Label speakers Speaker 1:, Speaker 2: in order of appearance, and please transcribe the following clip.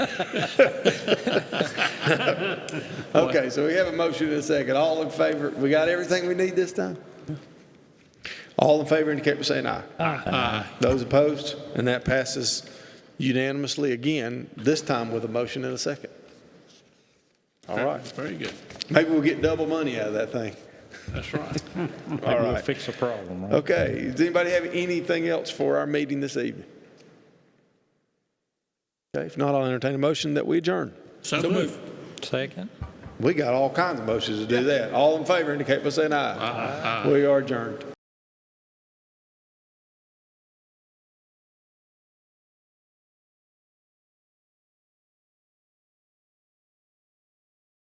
Speaker 1: Okay, so we have a motion and a second. All in favor, we got everything we need this time? All in favor indicate by saying aye. Aye. Those opposed? And that passes unanimously again, this time with a motion and a second. All right.
Speaker 2: Very good.
Speaker 1: Maybe we'll get double money out of that thing.
Speaker 2: That's right.
Speaker 1: All
Speaker 3: We'll
Speaker 1: right.
Speaker 3: fix the problem, right?
Speaker 1: Okay, does anybody have anything else for our meeting this evening? Okay, if not, I'll entertain a motion that we adjourn.
Speaker 2: So moved.
Speaker 3: Second?
Speaker 1: We got all kinds of motions to do that. All in favor indicate by saying aye. Aye. We are adjourned.